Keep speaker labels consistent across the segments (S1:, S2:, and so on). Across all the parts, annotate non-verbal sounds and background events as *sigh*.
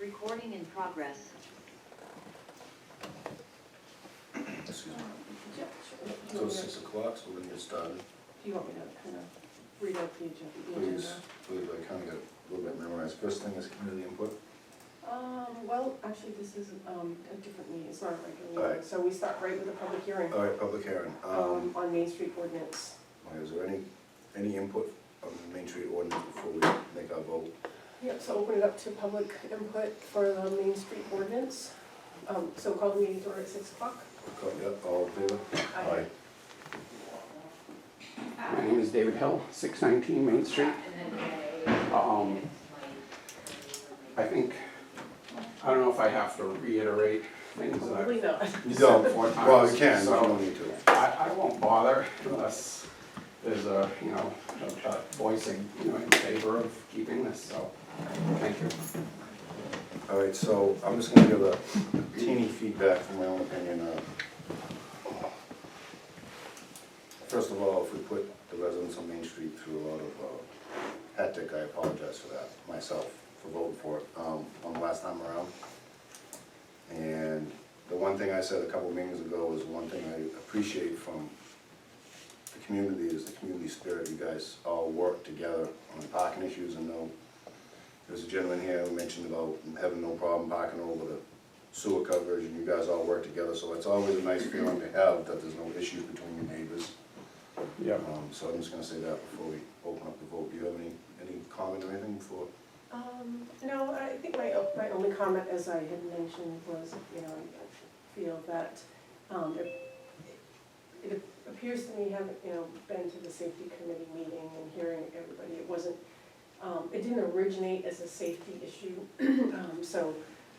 S1: Recording in progress.
S2: Excuse me.
S3: Yep, sure. Do you
S2: So
S3: want
S2: it's
S3: me
S2: six
S3: to-
S2: o'clock, so we're gonna get started.
S3: do you want me to kind of read out the agenda? the
S2: Please,
S3: agenda?
S2: please, I kinda got a little bit memorized. First thing is community input.
S3: Um, well, actually, this is um, a different meeting, it's not a regular meeting,
S2: Alright.
S3: so we start right with a public hearing
S2: All right, public hearing.
S3: um,
S2: Um,
S3: on Main Street ordinance.
S2: is there any, any input on the Main Street ordinance before we make our vote?
S3: Yep, so open it up to public input for the Main Street ordinance. Um, So call the meeting to order at six o'clock.
S2: Okay, yeah, All in favor?
S3: Aye.
S4: My name is David Hill, 619 Main Street. Um, I think, I don't know if I have to reiterate things
S3: Probably
S4: that
S3: not.
S2: You don't,
S4: Except for
S2: well, you
S4: times,
S2: can, but you
S4: so-
S2: don't need to.
S4: I, I won't bother unless there's a, you know, a a voicing, you know, in favor of keeping this, so, thank you.
S2: All right, so I'm just gonna give a teeny feedback from my own opinion. uh, First of all, if we put the residents on Main Street through a lot of uh, hectic, I apologize for that, myself, for voting for it, um, on the last time around. And the one thing I said a couple meetings ago is one thing I appreciate from the community is the community spirit. You guys all work together on parking issues and know there was a gentleman here who mentioned about having no problem parking over the sewer coverage, and you guys all work together, so it's always a nice feeling to have that there's no issues between your neighbors.
S4: Yeah.
S2: Um, so I'm just gonna say that before we open up the vote. Do you have any, any comment or anything before?
S3: Um, No, I think my, my only comment, as I had mentioned, was, you know, I feel that um, it it appears to me, having, you know, been to the safety committee meeting and hearing everybody, it wasn't, um, it didn't originate as a safety issue. *clears throat* Um, So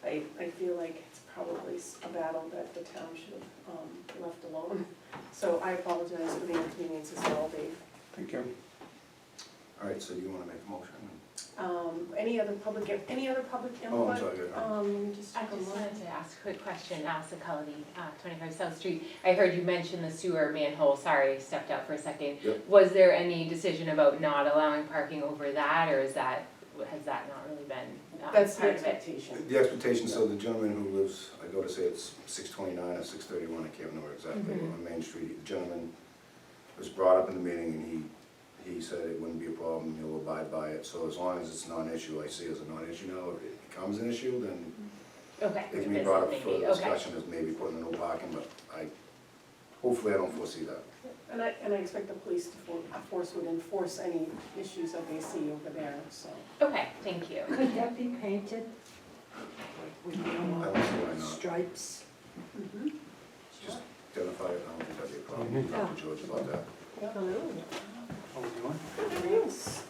S3: I, I feel like it's probably s- a battle that the town should have um, left alone. So I apologize for the inconvenience as well, Dave.
S4: Thank you.
S2: All right, so you wanna make a motion?
S3: Um, Any other public, any other public input?
S2: Oh, I'm sorry, yeah.
S3: Um, just
S5: I
S3: take a
S5: just
S3: look.
S5: wanted to ask a quick question, Allison Cullity, uh, 25 South Street. I heard you mention the sewer manhole, sorry, I stepped out for a second.
S2: Yep.
S5: Was there any decision about not allowing parking over that, or is that, has that not really been uh,
S3: That's the
S5: part of it?
S3: expectation.
S2: The expectation, so the gentleman who lives, I go to say it's six twenty-nine or six thirty-one, I can't remember exactly,
S5: Mhm.
S2: on Main Street, the gentleman was brought up in the meeting and he, he said it wouldn't be a problem, he'll abide by it, so as long as it's not an issue, I see it as a non-issue now, if it becomes an issue, then
S5: Okay.
S2: it can be
S5: that's
S2: brought up
S5: Mm-hmm. maybe,
S2: for
S5: okay.
S2: discussion as maybe putting a no parking, but I, hopefully I don't foresee that.
S3: And I, and I expect the police to, for- of course, would enforce any issues that they see over there, so.
S5: Okay, thank you.
S6: Could that be painted with
S2: I
S6: normal
S2: don't see why not,
S6: stripes?
S2: just identify it, I don't think that'd be a problem, talk to George about that.
S6: Hello.
S4: How we doing?
S3: Yes.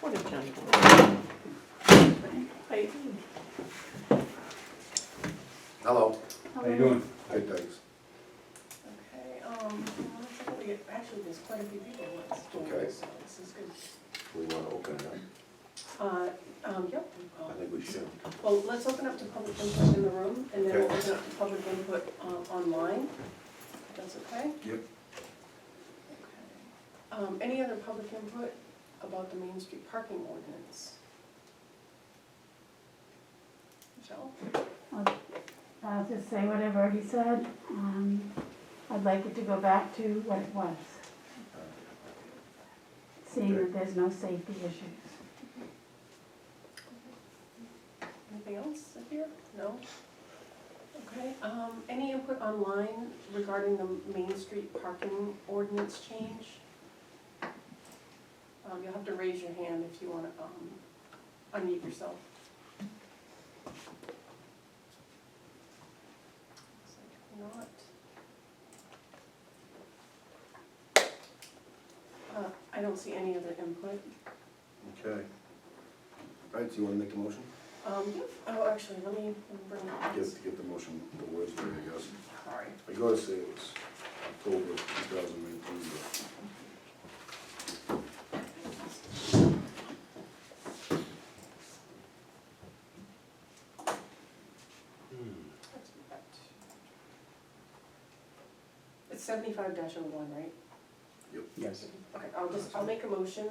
S6: What a gentleman.
S3: I,
S2: Hello.
S4: How you doing?
S2: Good, thanks.
S3: okay, um, let's see what we get- actually, there's quite a few people on this
S2: Okay.
S3: door, so this is good.
S2: We wanna open it up,
S3: Uh, um, yep. um,
S2: I think we should.
S3: Well, let's open up to public input in the room, and then we'll
S2: Okay.
S3: open up to public input uh, online, if that's okay?
S2: Yep.
S3: Okay. Um, Any other public input about the Main Street parking ordinance? Michelle?
S7: I'll just say what I've already said. Um, I'd like it to go back to what it was, seeing that there's no safety issues.
S3: Anything else up here? No? Okay, um, any input online regarding the Main Street parking ordinance change? Um, you'll have to raise your hand if you wanna, um, unmute yourself. Looks like Not. Uh, I don't see any other input.
S2: Okay. All right, do you wanna make the motion?
S3: Um, oh, actually, let me bring up this.
S2: Get, get the motion, the words there, I guess.
S3: Sorry.
S2: I gotta say it was October two thousand nineteen,
S3: It's seventy-five dash oh one, right?
S4: Yes.
S3: oh Okay, I'll just, I'll make a motion